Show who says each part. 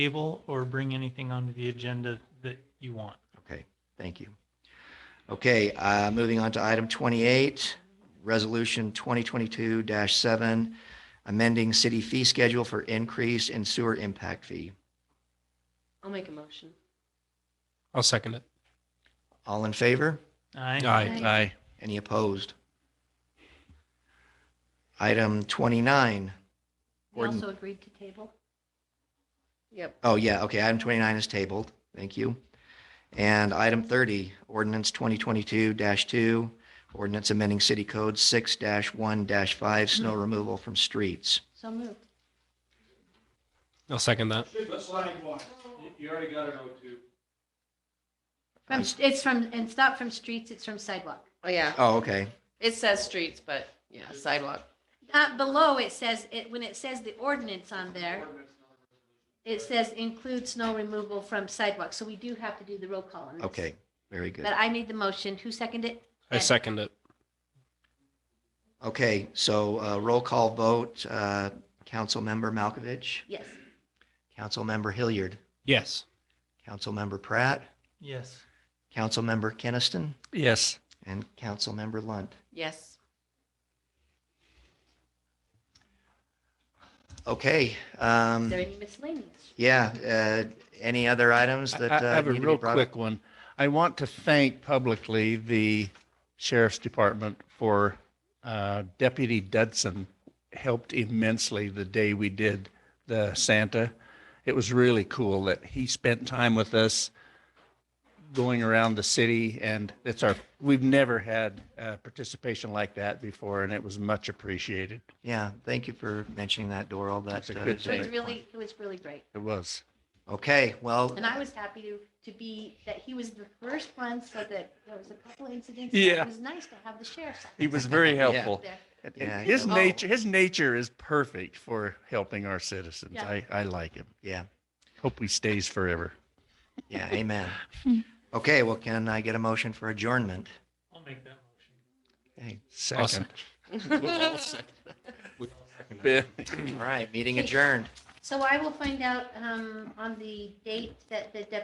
Speaker 1: table or bring anything onto the agenda that you want.
Speaker 2: Okay, thank you. Okay, uh, moving on to item 28, Resolution 2022-7, amending city fee schedule for increase in sewer impact fee.
Speaker 3: I'll make a motion.
Speaker 4: I'll second it.
Speaker 2: All in favor?
Speaker 1: Aye.
Speaker 4: Aye.
Speaker 3: Aye.
Speaker 2: Any opposed? Item 29,
Speaker 3: We
Speaker 2: Gordon.
Speaker 3: also agreed to table? Yep.
Speaker 2: oh yeah, okay, item 29 is tabled. Thank you. And item 30, ordinance 2022-2, ordinance amending city code 6-1-5, snow removal from streets.
Speaker 3: So moved.
Speaker 4: I'll second that.
Speaker 5: Slide one. You- You already got it, O two.
Speaker 3: From, it's from, and it's not from streets, it's from sidewalk.
Speaker 6: Oh, yeah.
Speaker 2: Oh, okay.
Speaker 6: It says streets, but yeah, sidewalk.
Speaker 3: Uh, below it says, it, when it says the ordinance on there, it says include snow removal from sidewalk. So we do have to do the roll call on this.
Speaker 2: Okay, very good.
Speaker 3: But I made the motion. Who seconded it?
Speaker 4: I second it.
Speaker 2: Okay, so uh, roll call vote, uh, Councilmember Malkovich,
Speaker 3: Yes.
Speaker 2: Councilmember Hilliard,
Speaker 4: Yes.
Speaker 2: Councilmember Pratt,
Speaker 1: Yes.
Speaker 2: Councilmember Keniston,
Speaker 4: Yes.
Speaker 2: and Councilmember Lunt.
Speaker 6: Yes.
Speaker 2: Okay, um,
Speaker 3: Is there any miscellaneous?
Speaker 2: yeah, uh, any other items that?
Speaker 7: I-
Speaker 2: uh,
Speaker 7: I have a
Speaker 2: need to be
Speaker 7: real
Speaker 2: brought up?
Speaker 7: quick one. I want to thank publicly the sheriff's department for uh, Deputy Dudson helped immensely the day we did the Santa. It was really cool that he spent time with us going around the city and it's our, we've never had uh, participation like that before and it was much appreciated.
Speaker 2: Yeah, thank you for mentioning that, Doral. That
Speaker 7: That's a
Speaker 2: uh,
Speaker 7: good
Speaker 2: is
Speaker 3: It
Speaker 2: a-
Speaker 3: was
Speaker 7: thing.
Speaker 3: really, it was really great.
Speaker 7: It was.
Speaker 2: Okay, well,
Speaker 3: And I was happy to, to be, that he was the first one so that there was a couple incidents.
Speaker 7: Yeah.
Speaker 3: It was nice to have the sheriff's
Speaker 7: He was very helpful.
Speaker 3: there.
Speaker 7: And-
Speaker 2: Yeah, oh,
Speaker 7: and
Speaker 2: he
Speaker 7: His
Speaker 2: does.
Speaker 7: nature, his nature is perfect for helping our citizens.
Speaker 3: Yeah.
Speaker 7: I, I like him.
Speaker 2: yeah,
Speaker 7: Hope he stays forever.
Speaker 2: yeah, amen. Okay, well, can I get a motion for adjournment?
Speaker 1: I'll make that motion.
Speaker 2: Okay,
Speaker 7: Second.
Speaker 2: All right, meeting adjourned.
Speaker 7: Hmm.
Speaker 3: So I will find out um, on the date that the deputy